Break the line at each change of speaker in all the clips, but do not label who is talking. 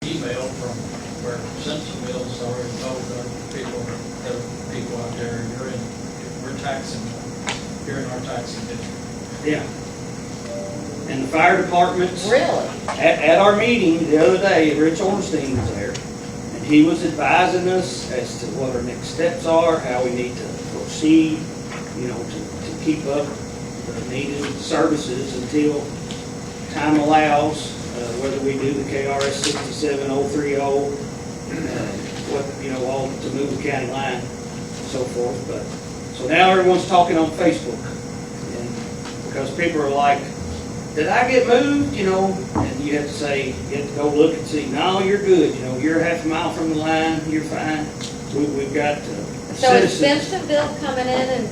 trail from where Simpsonville's already told our people, the people out there, you're in, we're taxing, you're in our taxing district.
Yeah. And the fire departments, at,
Really?
at our meeting the other day, Rich Ornstein was there. And he was advising us as to what our next steps are, how we need to proceed, you know, to, to keep up the needed services until time allows, uh, whether we do the KRS sixty-seven oh three oh, what, you know, all to move the county line, so forth, but, so now everyone's talking on Facebook. and- Because people are like, did I get moved, you know, and you have to say, you have to go look and see, no, you're good, you know, you're half a mile from the line, you're fine, we, we've got uh,
So is
citizens.
Simpsonville coming in and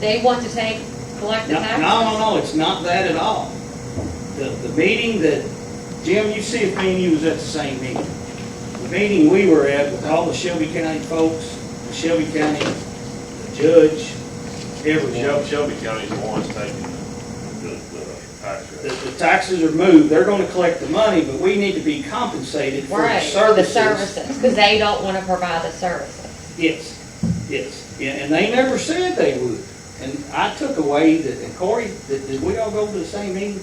they want to take, collect the
No,
taxes?
no, no, no, it's not that at all. The, the meeting that, Jim, you see if me and you was at the same meeting. The meeting we were at with all the Shelby County folks, the Shelby County judge, every
Shelby,
judge,
Shelby County's the ones taking the, the tax
the,
rate.
the taxes are moved, they're gonna collect the money, but we need to be compensated for the
Right, for the
services.
services, because they don't want to provide the services.
Yes, yes, yeah, and they never said they would. And I took away that, and Corey, did, did we all go to the same meeting?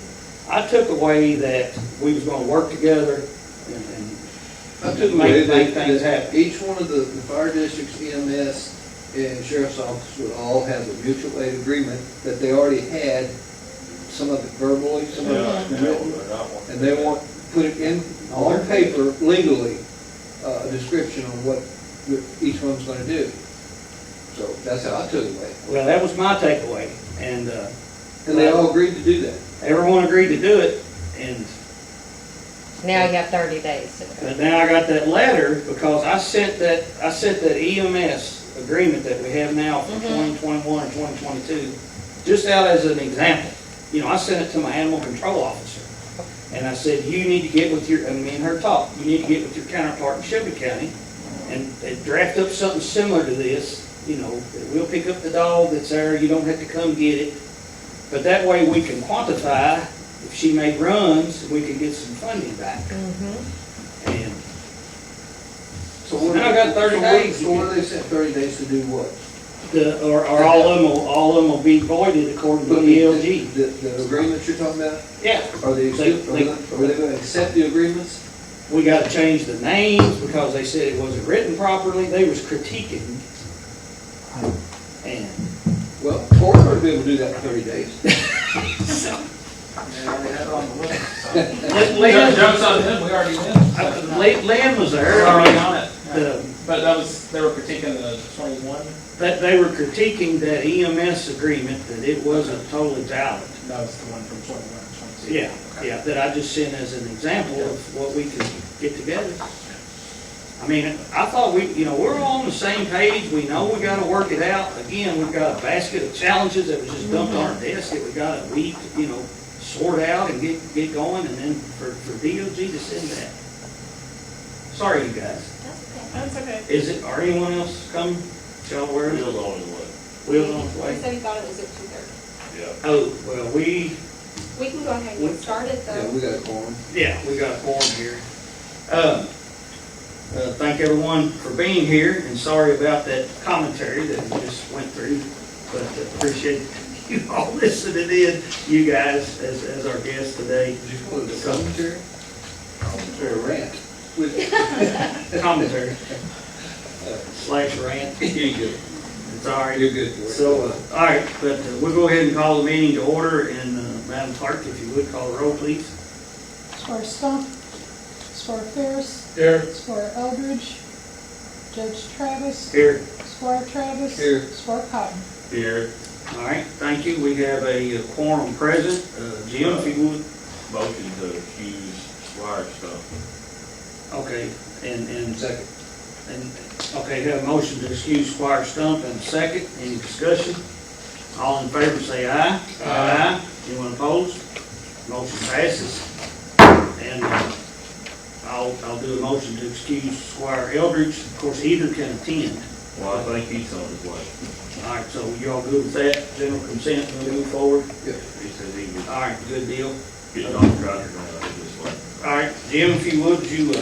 I took away that we was gonna work together and, and
I took away
Make- make
that,
things
that
happen.
each one of the, the fire districts, EMS, and sheriff's office would all have a mutual aid agreement that they already had, some of it verbally, some of it written, and they want, put it in, on paper legally, uh, a description on what each one's gonna do. So that's how I took it away.
Well, that was my takeaway, and uh,
And they all agreed to do that.
everyone agreed to do it, and,
Now you have thirty days to do it.
but now I got that letter, because I sent that, I sent that EMS agreement that we have now for
Mhm.
twenty twenty-one and twenty twenty-two, just out as an example. You know, I sent it to my animal control officer, and I said, you need to get with your, and me and her talked, you need to get with your counterpart in Shelby County, and and draft up something similar to this, you know, that we'll pick up the dog that's there, you don't have to come get it. But that way we can quantify if she made runs, we could get some funding back.
Mhm.
And
So what-
Now I got 30
so what-
days.
So what do they said, thirty days to do what?
the, or, or all of them will, all of them will be voided according to
But
the E LG.
The, the agreement you're talking about,
Yeah,
are they,
They-
accept- are
they-
they are they gonna accept the agreements?
we gotta change the names because they said it wasn't written properly, they was critiquing. And
Well, Cory would be able to do that in thirty days.
Lynn,
Jokes on them, we already did.
uh, Lynn Lynn was there, I
Already
mean,
on it.
the,
But that was, they were critiquing the twenty-one,
that they were critiquing that EMS agreement, that it wasn't totally valid.
that was the one from twenty-one, twenty-two.
Yeah, yeah, that I just sent as an example of what we could get together. I mean, I thought we, you know, we're all on the same page, we know we gotta work it out. Again, we've got a basket of challenges that was just dumped
Mm-hmm.
on our desk that we got a week, you know, sort out and get, get going, and then for, for DOG to send that. Sorry, you guys.
That's okay.
Is it, are anyone else coming? Y'all aware of
Bill's
it?
the only one,
Wheels on the
He
way?
said he thought it was at two thirty.
yeah.
Oh, well, we,
We can go ahead and get started
Yeah,
though.
we got a quorum.
Yeah, we got a forum here. Um, uh, Thank everyone for being here, and sorry about that commentary that we just went through, but appreciate you all listening in, you guys, as, as our guests today.
Did you call it a commentary? Commentary rant. With-
Commentary slash rant,
You're good.
it's all right.
You're good. Cory.
So, uh, all right, but uh, we'll go ahead and call the meeting to order, and uh, Madam Clerk, if you would, call the roll, please.
Squire Stump, Squire Ferris,
Here.
Squire Eldridge, Judge Travis,
Here.
Squire Travis.
Here.
Squire Cotton.
Here,
All right, thank you, we have a uh, quorum present. Uh, Jim, if you would,
motion to accuse Squire Stump.
Okay, and, and,
Second.
and, okay, have a motion to excuse Squire Stump and a second, any discussion? All in favor, say aye. Aye. Anyone opposed? Motion passes. And uh, I'll, I'll do a motion to excuse Squire Eldridge, of course, either can attend.
Well, I think he's on his way.
All right, so you all good with that, general consent, we'll move forward?
He said he was
All right, good deal.
getting off the truck and all that, just like.
All right, Jim, if you would, you uh,